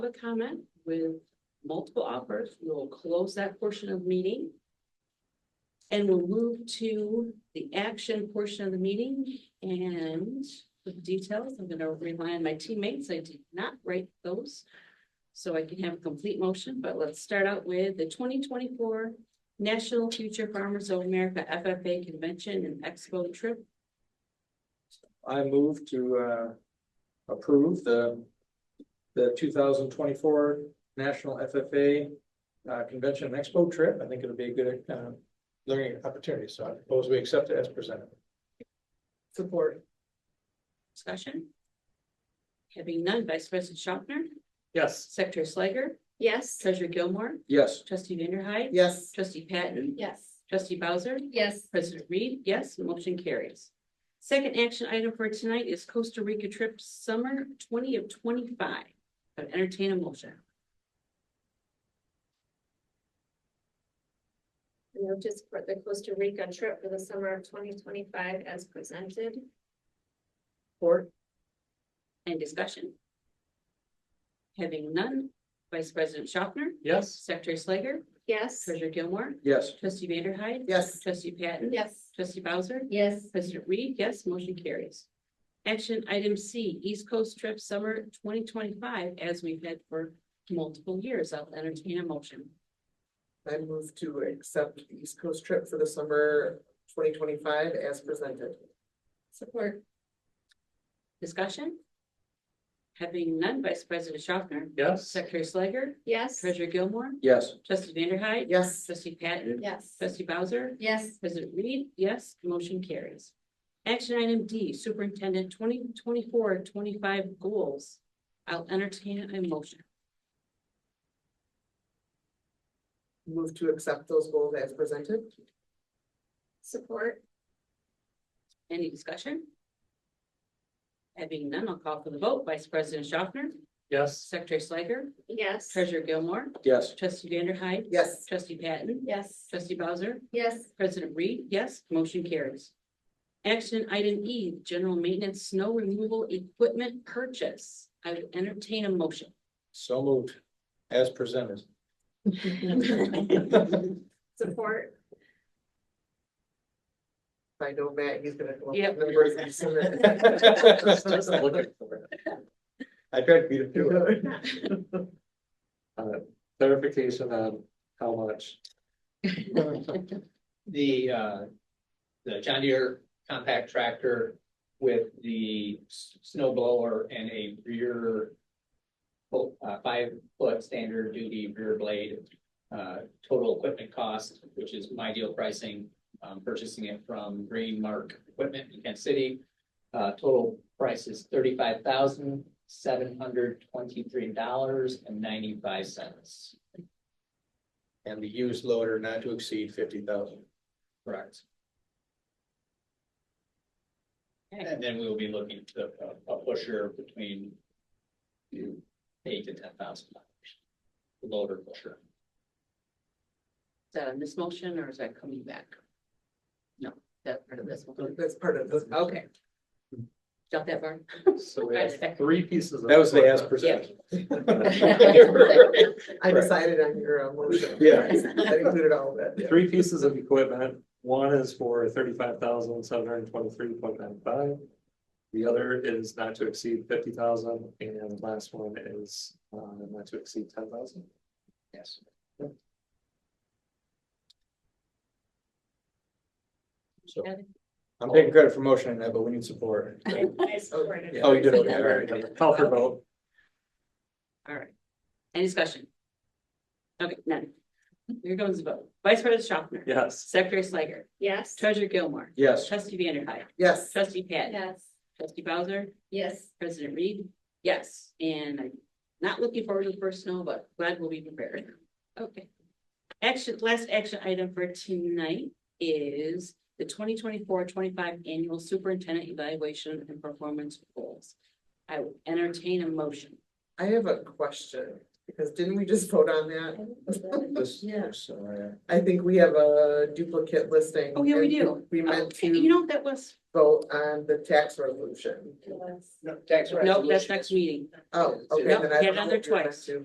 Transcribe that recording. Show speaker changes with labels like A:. A: public comment with multiple offers. We'll close that portion of the meeting. And we'll move to the action portion of the meeting and the details. I'm gonna rely on my teammates. I did not write those. So I can have a complete motion, but let's start out with the twenty twenty-four National Future Farmers of America FFA Convention and Expo Trip.
B: I move to uh approve the. The two thousand twenty-four National FFA uh Convention and Expo trip. I think it'll be a good uh learning opportunity, so I propose we accept it as presented.
A: Support. Discussion. Having none, Vice President Schopner,
B: Yes.
A: Secretary Slager,
C: Yes.
A: Treasurer Gilmore,
B: Yes.
A: Trustee Vanderhyde.
B: Yes.
A: Trustee Patton,
C: Yes.
A: Trustee Bowser,
C: Yes.
A: President Reed, yes, motion carries. Second action item for tonight is Costa Rica trip summer twenty of twenty-five. I would entertain a motion.
C: Notice for the Costa Rica trip for the summer of twenty twenty-five as presented.
A: Or. And discussion. Having none, Vice President Schaffner,
B: Yes.
A: Secretary Slager,
C: Yes.
A: Treasurer Gilmore,
B: Yes.
A: Trustee Vanderhyde.
B: Yes.
A: Trustee Patton.
C: Yes.
A: Trustee Bowser.
C: Yes.
A: President Reed, yes, motion carries. Action item C, East Coast Trip Summer twenty twenty-five, as we've had for multiple years, I'll entertain a motion.
D: I move to accept the East Coast trip for the summer twenty twenty-five as presented.
C: Support.
A: Discussion? Having none, Vice President Schaffner,
B: Yes.
A: Secretary Slager,
C: Yes.
A: Treasurer Gilmore,
B: Yes.
A: Trustee Vanderhyde.
D: Yes,
A: Trustee Patton,
C: Yes.
A: Trustee Bowser,
C: Yes.
A: President Reed, yes, motion carries. Action item D, Superintendent 2024-25 goals, I'll entertain a motion.
D: move to accept those goals as presented.
C: Support.
A: Any discussion? Having none, I'll call for the vote. Vice President Schaffner,
B: Yes.
A: Secretary Slager,
C: Yes.
A: Treasurer Gilmore,
B: Yes.
A: Trustee Vanderhyde,
D: Yes,
A: Trustee Patton,
C: Yes.
A: Trustee Bowser,
C: Yes.
A: President Reed, yes, motion carries. Action item E, general maintenance snow removal equipment purchase. I would entertain a motion.
B: So moved. As presented.
C: Support.
D: If I know Matt, he's gonna. come up with
A: Yep.
D: numbers and send it.
B: I tried to beat it to it. Uh, Clarification on how much.
E: the uh, the John Deere compact tractor with the s- snow blower and a rear fo- uh, five foot standard duty rear blade, uh, total equipment cost, which is my deal pricing, um, purchasing it from Green Mark Equipment in Kansas City. Uh, total price is thirty-five thousand, seven hundred twenty-three dollars and ninety-five cents.
B: And the used loader not to exceed fifty thousand.
E: Correct.
A: Okay.
E: And then we'll be looking to uh, a- a pusher between eight to ten thousand dollars. Loader pusher.
A: Is that on this motion or is that coming back? No, that's part of this one.
D: That's part of this.
A: Okay. Got that, Barb?
B: So
A: we have
B: three pieces. That was the as presented.
D: I decided on your uh, motion.
B: Yeah.
D: That included all of that.
F: Three pieces of equipment, one is for thirty-five thousand seven hundred twenty-three point nine five. The other is not to exceed fifty thousand, and the last one is uh not to exceed ten thousand.
E: Yes.
B: So I'm taking credit for motioning that, but we need support.
C: I support it.
B: Oh, you did, okay, all right.
F: Call for vote.
A: All right. Any discussion? Okay, none. Here goes the vote. Vice President Schaffner.
F: Yes,
A: Secretary Slager.
C: Yes.
A: Treasurer Gilmore.
B: Yes,
A: Trustee Vanderhyde.
D: Yes,
A: Trustee Patton.
C: Yes.
A: Trustee Bowser.
C: Yes.
A: President Reed. Yes, and I'm not looking forward to the first snow, but glad we'll be prepared. Okay. Action, last action item for tonight is the 2024-25 annual superintendent evaluation and performance goals. I will entertain a motion.
D: I have a question. because didn't we just vote on that?
B: This-
A: Yeah.
B: this, uh,
D: I think we have a duplicate listing.
A: Oh, yeah, we
D: and
A: do.
D: We meant
A: Oh, You
D: to
A: know, what that was,
D: vote on the tax resolution.
E: No, tax
A: no, that's
E: resolution.
A: next meeting.
D: Oh, okay,
A: Nope,
D: then
A: you
D: I
A: had
D: don't
A: it
D: know
A: on there
D: what you're meant
A: twice.
D: to.